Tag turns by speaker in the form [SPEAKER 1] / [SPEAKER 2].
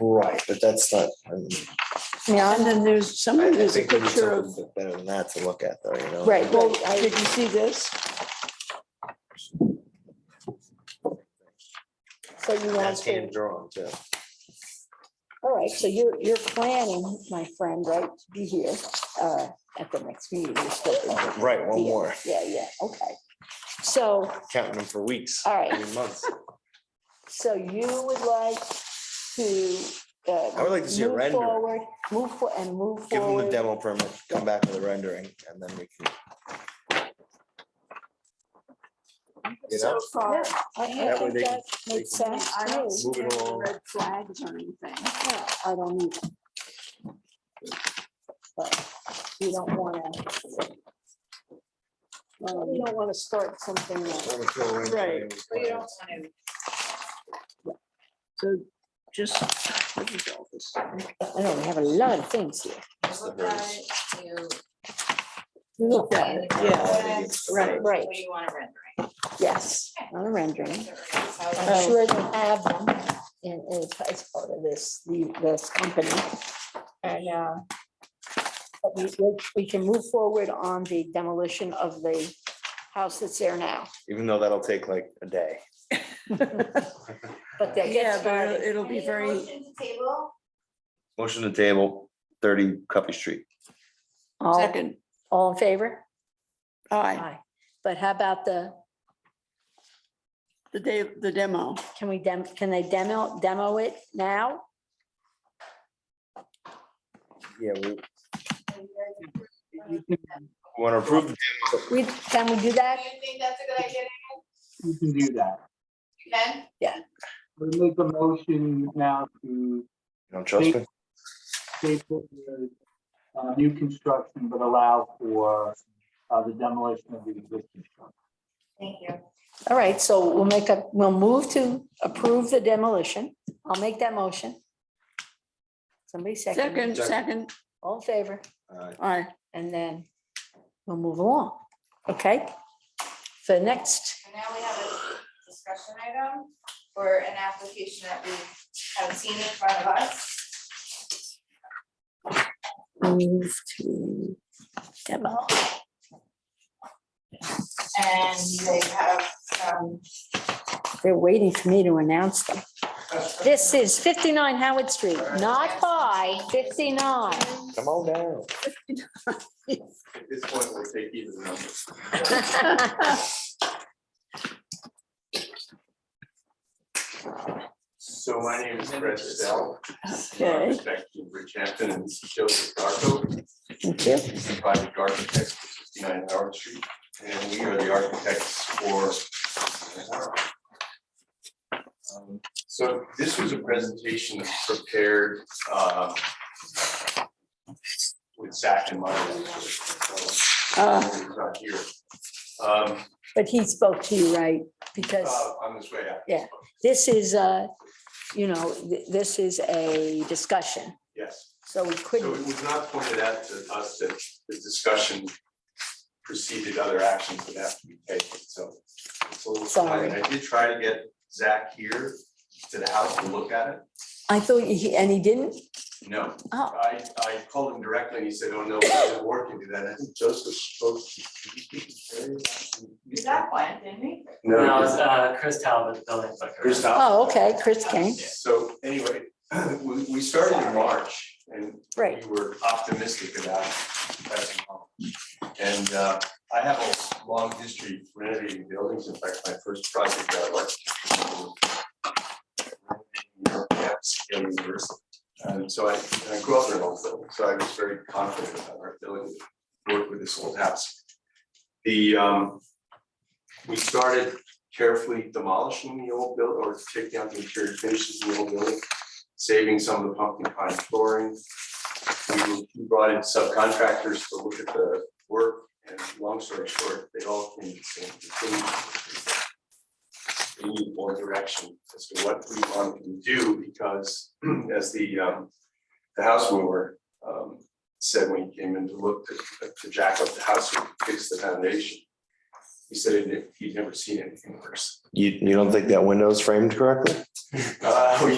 [SPEAKER 1] Right, but that's not. I mean,
[SPEAKER 2] Yeah, and then there's, some
[SPEAKER 1] I- I
[SPEAKER 2] of there's a
[SPEAKER 1] think we need
[SPEAKER 2] picture of,
[SPEAKER 1] something Better than that to look at though, you know?
[SPEAKER 2] right, well, did you see this? So you
[SPEAKER 1] That's
[SPEAKER 2] want to,
[SPEAKER 1] hand drawn too.
[SPEAKER 2] all right, so you're, you're planning, my friend, right, to be here uh, at the next meeting. you're still gonna be
[SPEAKER 1] Right, one
[SPEAKER 2] here.
[SPEAKER 1] more,
[SPEAKER 2] Yeah, yeah, okay. So,
[SPEAKER 1] counting them for weeks.
[SPEAKER 2] all right,
[SPEAKER 1] I mean, months.
[SPEAKER 2] so you would like to.
[SPEAKER 1] I would like to see a render.
[SPEAKER 2] Move forward and move
[SPEAKER 1] Give them the
[SPEAKER 2] forward.
[SPEAKER 1] demo permit, come back with a rendering and then we can. You know,
[SPEAKER 3] So far,
[SPEAKER 2] I
[SPEAKER 1] That way
[SPEAKER 2] think
[SPEAKER 1] they can-
[SPEAKER 2] that makes
[SPEAKER 1] they
[SPEAKER 2] sense
[SPEAKER 3] I
[SPEAKER 2] to
[SPEAKER 3] don't
[SPEAKER 2] me.
[SPEAKER 3] see
[SPEAKER 1] Moving
[SPEAKER 3] any
[SPEAKER 1] along.
[SPEAKER 3] red flags or anything.
[SPEAKER 2] No, I don't need it. But you don't wanna. Well, you don't wanna start something that-
[SPEAKER 1] I'm gonna throw a rendering
[SPEAKER 3] Right.
[SPEAKER 1] in with
[SPEAKER 3] But you don't
[SPEAKER 1] plans.
[SPEAKER 3] want to.
[SPEAKER 2] so just. what is all this? I don't have a lot of things here.
[SPEAKER 1] That's the verse.
[SPEAKER 2] Look at it,
[SPEAKER 3] Yeah, right.
[SPEAKER 2] Right,
[SPEAKER 4] What do you want to render?
[SPEAKER 2] yes, on a rendering. Oh. I'm
[SPEAKER 4] How
[SPEAKER 2] sure they have them in, in as part of this, the- this company. And, uh, but we, we- we can move forward on the demolition of the house that's there now,
[SPEAKER 1] Even though that'll take like a day.
[SPEAKER 2] but they
[SPEAKER 3] Yeah,
[SPEAKER 2] get
[SPEAKER 3] but
[SPEAKER 2] started.
[SPEAKER 3] it'll- it'll be very,
[SPEAKER 4] Table,
[SPEAKER 1] Motion to table, thirty Cuffy Street.
[SPEAKER 2] All,
[SPEAKER 3] second,
[SPEAKER 2] all in favor?
[SPEAKER 3] aye,
[SPEAKER 2] Aye. But how about the,
[SPEAKER 3] the day, the demo.
[SPEAKER 2] can we dem, can they demo, demo it now?
[SPEAKER 1] Yeah, we. Want to approve, the-
[SPEAKER 2] We, can we do
[SPEAKER 4] do
[SPEAKER 2] that?
[SPEAKER 4] you think that's a good idea?
[SPEAKER 5] You can do that.
[SPEAKER 4] You can?
[SPEAKER 5] We make a motion now to
[SPEAKER 1] you don't trust me?
[SPEAKER 5] table the uh, new construction, but allow for uh, the demolition of the existing structure.
[SPEAKER 4] Thank you.
[SPEAKER 2] All right, so we'll make a, we'll move to approve the demolition. I'll make that motion. Somebody second.
[SPEAKER 3] Second,
[SPEAKER 2] it.
[SPEAKER 3] second,
[SPEAKER 2] All in favor,
[SPEAKER 1] Uh,
[SPEAKER 3] aye.
[SPEAKER 2] and then we'll move along, okay? So next,
[SPEAKER 4] And now we have a discussion item for an application that we have seen in front of us.
[SPEAKER 2] move to demo.
[SPEAKER 4] And they have, um,
[SPEAKER 2] They're waiting for me to announce them. This is 59 Howard Street, not high, 59.
[SPEAKER 1] Come on down.
[SPEAKER 6] At this point, we'll take either number. So my name is Fred Stell.
[SPEAKER 3] Okay.
[SPEAKER 6] Respect to Rich Hampton and Joseph Darko.
[SPEAKER 2] Thank you.
[SPEAKER 6] He's the project architect for sixty-nine Howard Street, and we are the architects for. 69 Howard. Um, So this was a presentation prepared uh, with Zach in mind.
[SPEAKER 3] Uh,
[SPEAKER 6] He's not here. Um,
[SPEAKER 2] But he spoke to you, right? Because
[SPEAKER 6] uh, On this way out.
[SPEAKER 2] Yeah. this is a, you know, th- this is a discussion,
[SPEAKER 6] Yes.
[SPEAKER 2] so we
[SPEAKER 6] So it
[SPEAKER 2] couldn't.
[SPEAKER 6] was not pointed out to us that the discussion preceded other actions that have to be taken, so. it's a little
[SPEAKER 2] Sorry.
[SPEAKER 6] tight. I did try to get Zach here to the house to look at it.
[SPEAKER 2] I thought, he and he didn't?
[SPEAKER 6] No,
[SPEAKER 2] Oh,
[SPEAKER 6] I, I called him directly and he said, oh, no, we didn't work into that. I think Joseph spoke.
[SPEAKER 4] is that one, didn't we?
[SPEAKER 7] No, it was uh, Chris Talbot, building inspector.
[SPEAKER 6] Chris Al-
[SPEAKER 2] oh, okay, Chris came.
[SPEAKER 6] So anyway, we, we started in March and
[SPEAKER 2] Right.
[SPEAKER 6] we were optimistic about passing on. And uh, I have a long history of renovating buildings. In fact, my first project that I like. And so I, and I grew up in an old building, so I was very confident about our ability to work with this old house. The, um, we started carefully demolishing the old building or taking out the interior finishes in the old building, saving some of the pumpkin pine flooring. We brought in subcontractors to look at the work, and long story short, they all came to the same conclusion. We need more direction as to what we want to do, because as the, um, the house mover, um, said when he came in to look to, to jack up the house, and fix the foundation. He said he'd never seen anything worse.
[SPEAKER 1] You, you don't think that window's framed correctly?
[SPEAKER 6] Uh, we